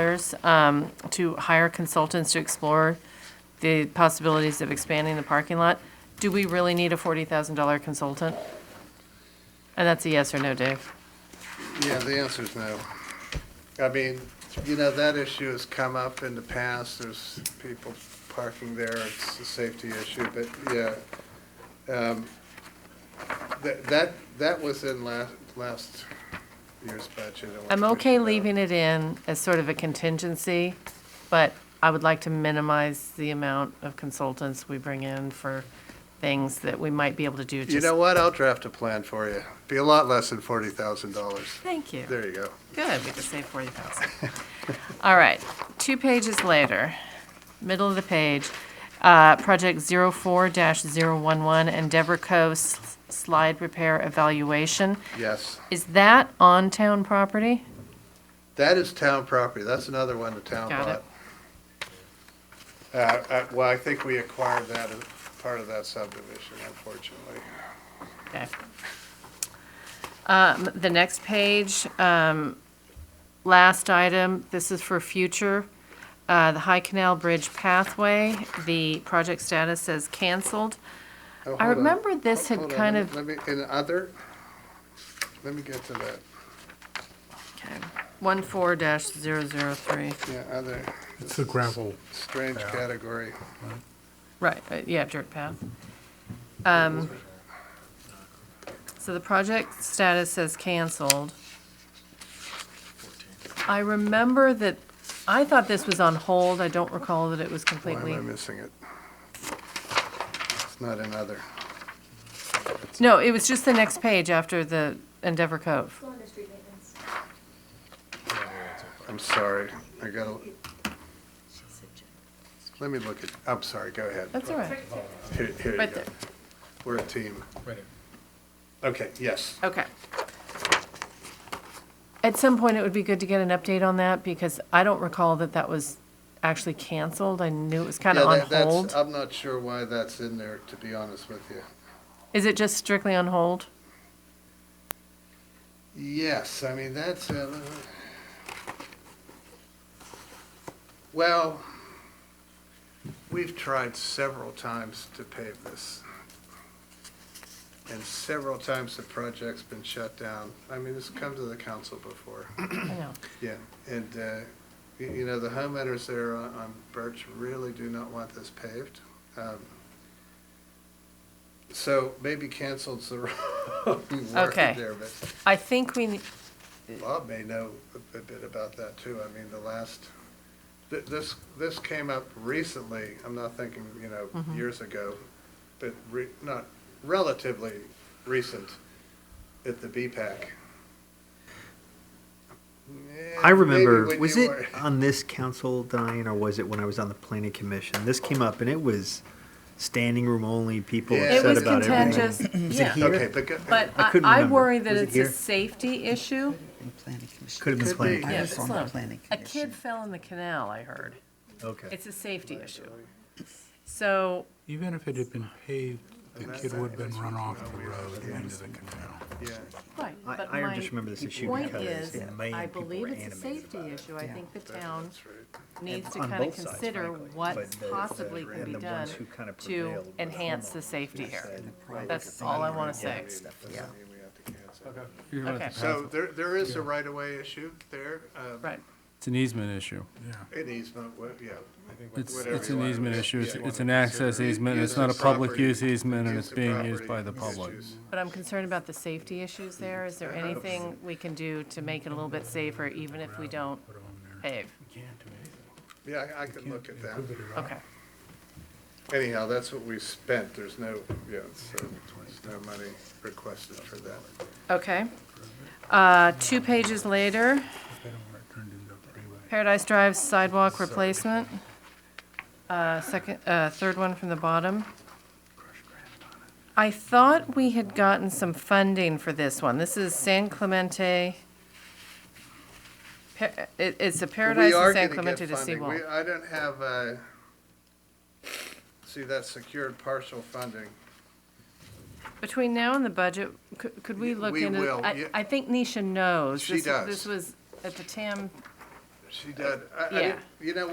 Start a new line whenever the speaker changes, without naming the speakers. matters, um, to hire consultants to explore the possibilities of expanding the parking lot. Do we really need a $40,000 consultant? And that's a yes or no, Dave.
Yeah, the answer's no. I mean, you know, that issue has come up in the past, there's people parking there, it's a safety issue, but yeah. Um, That, that, that was in last, last year's budget. I want
I'm
to put it
okay
out.
leaving it in as sort of a contingency, but I would like to minimize the amount of consultants we bring in for things that we might be able to do.
You
just-
know what, I'll draft a plan for you. Be a lot less than forty thousand dollars.
Thank you.
There you go.
Good, we could save forty thousand. All right, two pages later, middle of the page, uh, project zero four dash zero one one, Endeavor Cove s- slide repair evaluation.
Yes.
Is that on town property?
That is town property, that's another one the town
Got it.
bought. Uh, uh, well, I think we acquired that as part of that subdivision, unfortunately.
Okay. Um, the next page, um, last item, this is for future, uh, the High Canal Bridge pathway, the project status says canceled.
Oh,
I
hold on.
remember this had
Hold on,
kind
let
of
me- Let me, in other, let me get to that,
One four dash zero zero three.
yeah, other,
It's the gravel.
strange category.
Right, uh, yeah, dirt path. Um, so the project status says canceled. I remember that, I thought this was on hold. I don't recall that it was
Why am
completely.
I missing it? It's not another.
No, it was just the next page after the Endeavor Cove.
Go under street maintenance.
I'm sorry, I gotta. Let me look at, I'm sorry, go ahead.
That's all right.
Here, here you
Right
go.
there.
We're a team. Okay, yes.
Okay. At some point, it would be good to get an update on that because I don't recall that that was actually canceled. I knew it was kind of
Yeah,
on
that- that's-
hold.
I'm not sure why that's in there, to be honest with you.
Is it just strictly on hold?
Yes, I mean, that's, uh, well, we've tried several times to pave this. And several times the project's been shut down. I mean, it's come to the council before.
I know.
Yeah, and, uh, you, you know, the homeowners there on, on Birch really do not want this paved. Um, So maybe canceled's the wrong word
Okay.
there, but
I think we, ne-
Bob may know a- a bit about that too. I mean, the last, th- this, this came up recently, I'm not thinking, you know, years ago, but re, not relatively recent at the BPAC. Eh,
I
maybe
remember,
when
was
you
it
were-
on this council, Diane, or was it when I was on the planning commission? This came up and it was standing room only, people
Yeah.
it
upset
was
about everything.
contentious,
Was it
yeah.
Okay,
here?
but, go- uh,
But
I
I,
couldn't
I
remember.
worry that
Was it
it's a
here?
safety issue.
in planning commission.
Could have been
Could
planning.
be.
I
Yeah,
was
it's
on the
not-
planning
A
commission.
kid fell in the canal, I heard.
Okay.
It's a safety issue. So,
Even if it had been paved, the kid would have been run off the road into the canal.
yeah,
right,
I,
but
I
my
just remember this issue
point
because
is,
a million
I
people
believe
were
it's a
animated
safety
about it.
issue. I think the town
that's right.
needs to
on
kind of
both sides,
consider
frankly.
what
But the-
possibly can
and
be
the
done
ones who kind of
to
prevailed were the
enhance the safety here. That's
Yeah.
all I want to say.
Yeah.
I mean, we have to cancel.
Okay,
So there, there is a right-of-way issue there, um,
right.
It's an easement issue.
an easement, wha- yeah.
It's,
Whatever
it's
you
an
wanna-
easement
yeah,
issue. It's,
you
it's
wanna
an access
consider.
easement.
Use
It's not a
of
public
property-
use easement and
use
it's
of
being used
property
by the public.
issues.
But I'm concerned about the safety issues there. Is there anything we can do to make it a little bit safer, even if we don't pave?
Yeah, I, I could look at that.
Okay,
Anyhow, that's what we spent, there's no, yeah, so, there's no money requested for that.
okay. Uh, Two pages later, Paradise Drive sidewalk replacement. Uh, Second, uh, third one from the bottom. I thought we had gotten some funding for this one. This is San Clemente. Pa- it- It's a Paradise
We are
and San
gonna get
Clemente to
funding.
Seawall.
We- I don't have, uh, see, that's secured partial funding.
Between now and the budget, could, could we look
We
into?
will,
I-
yeah.
I think Nisha knows.
She
This-
does.
This was at the TAM
she did. I- I
Yeah.
didn't- You know,